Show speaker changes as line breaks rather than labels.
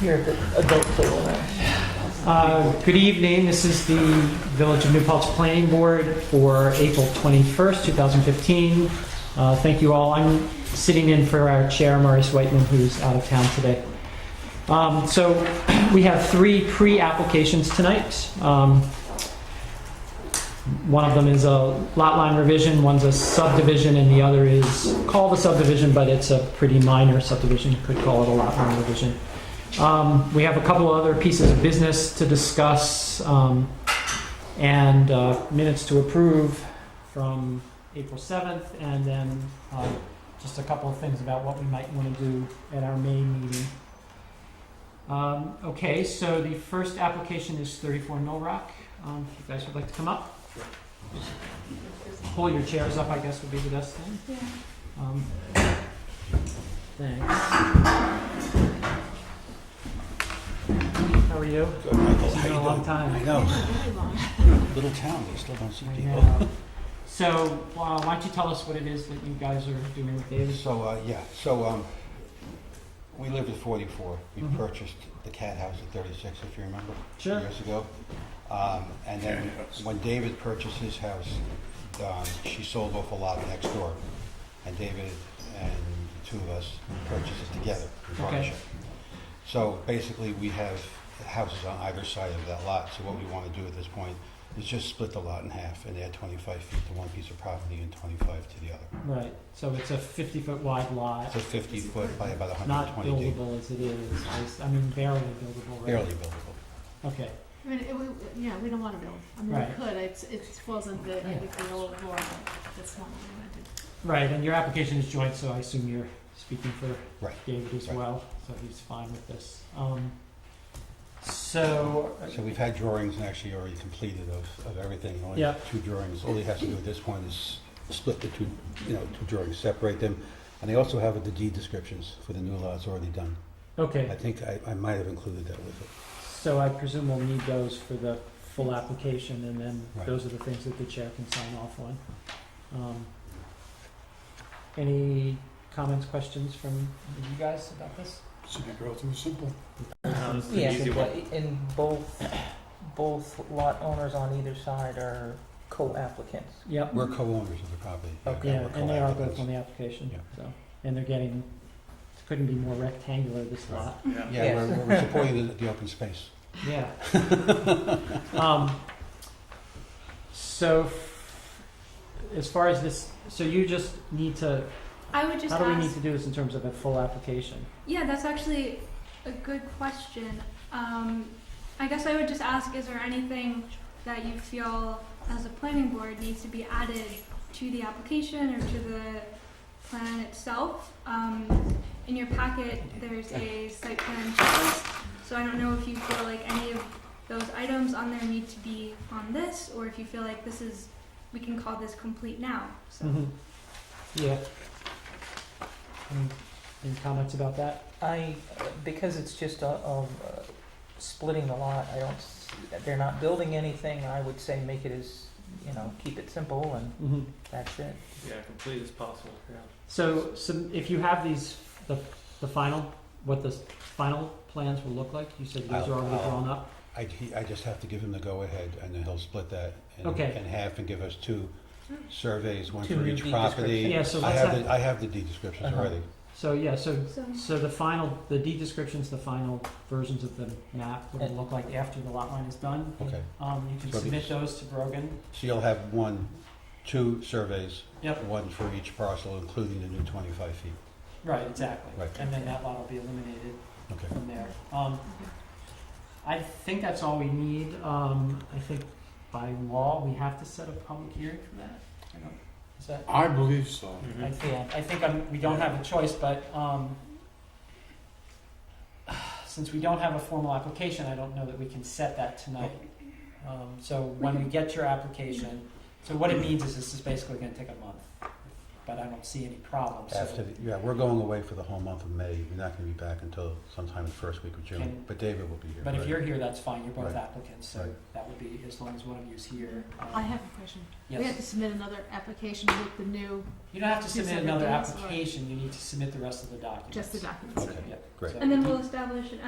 You're the adult filmmaker.
Uh, Good evening, this is the Village of New Paltz Planning Board for April 21st, 2015. Uh, Thank you all, I'm sitting in for our Chair, Maurice Whitman, who's out of town today. Um, So we have three pre-applications tonight. Um, One of them is a lot line revision, one's a subdivision, and the other is called a subdivision, but it's a pretty minor subdivision, You could call it a lot line revision. Um, We have a couple of other pieces of business to discuss um, and uh, minutes to approve from April 7th, and then uh, just a couple of things about what we might want to do at our May meeting. Um, Okay, so the first application is 34 Mill Rock. Um, If you guys would like to come up. Pull your chairs up, I guess, would be the best thing. Um, Thanks. How are you?
Good, Michael.
It's
How
been
you
a long
doing?
time.
I know. Little town, you still don't see
I
people.
know. So, uh, why don't you tell us what it is that you guys are doing with Davis?
So, uh, yeah, so, um, we lived at 44. We
Mhm.
purchased the cat house at 36, if you remember,
Sure.
years ago. Um, and then when David purchased his house, um, she sold off a lot next door. And David and the two of us purchased it together in
Okay.
partnership. So basically, we have houses on either side of that lot. So what we want to do at this point is just split the lot in half and add 25 feet to one piece of property and 25 to the other.
Right, so it's a fifty-foot wide lot,
It's a 50 foot by about
not
120 deep.
buildable as it is, It's- I mean barely buildable, right?
Barely buildable.
Okay,
I mean, it, we- yeah, we don't wanna build, I mean,
Right.
we could, it's, it wasn't the,
Yeah.
we could all ignore it, that's not what we wanna do.
right, and your application is joint, so I assume you're speaking for
Right.
David as
Right.
well, so he's fine with this. Um, So,
So we've had drawings and actually already completed of, of everything. Only
Yeah.
Two drawings. All you have to do at this point is split the two, you know, two drawings, separate them. And they also have the deed descriptions for the new lots already done. I
okay,
think I, I might have included that with it.
so I presume we'll need those for the full application, and then
Right.
those are the things that the chair can sign off on. Um, Any comments, questions from you guys about this?
Should be relatively simple.
Yeah, because and both, both lot owners on either side are co-applicants.
Yep.
We're co-owners of the property.
Okay.
Yeah,
We're
and they are both
co-applicants.
on the application,
Yeah.
so, and they're getting, couldn't be more rectangular, this lot.
Yeah, we're, we're supporting the, the open space.
Yeah. Um, So, f- as far as this, so you just need to,
I would just
how do we need
ask.
to do this in terms of a full application?
Yeah, that's actually a good question. Um, I guess I would just ask: Is there anything that you feel, as a planning board, needs to be added to the application or to the plan itself? Um, in your packet, there's a site plan checklist, so I don't know if you feel like any of those items on there need to be on this, or if you feel like this is we can call this complete now. So.
Mm-hmm.
Mhm. Yeah. Any- Any comments about that?
I, because it's just a, um, uh, splitting the lot, I don't, s- they're not building anything, I would say make it as, you know, keep it simple and
Mm-hmm.
Mhm.
that's it.
Yeah, complete as possible. Yeah.
So, some, if you have these, the, the final, what the final plans will look like, you said these
I'll-
are already
I'll-
drawn up?
I, he- I just have to give him the go-ahead, and then he'll split that in,
Okay.
in half and give us two surveys, one
Two
for
new
each
deed
property.
descriptions. Yeah, so
I
let's
have,
have-
the, I have the deed descriptions
Uh-huh.
already.
So, yeah, so
so
So the final, the deed description's the final versions of the map, what it'll look like after the lot line is done.
Okay.
Um, you can
So
submit
these-
those to Brogan.
So you'll have one, two surveys.
Yep.
One for each parcel, including the new 25 feet.
Right, exactly.
Right.
And then that lot will be eliminated
Okay.
from there. Um, I think that's all we need. Um, I think by law, we have to set a public hearing for that. I don't- Is that,
I believe so.
Mm-hmm.
Mm-hmm.
I think, I think I'm, we don't have a choice, but, um, since we don't have a formal application, I don't know that we can set that tonight. Um, so when we get your application, so what it means is this is basically gonna take a month, but I don't see any problems, so.
After, the- yeah, we're going away for the whole month of May. We're not going to be back until sometime the first week of June.
Can-
But David will be here.
But if
right?
you're here, that's fine, you're both
Right.
applicants, so
Right.
that would be, as long as one of you's here. um,
I have a question, we have
Yes,
to submit another application with the new,
you don't have to
Two
submit
separate
another
things, or-
application, you need to submit the rest of the documents.
just the documents,
Okay.
Yeah,
great.
so-
And then we'll establish an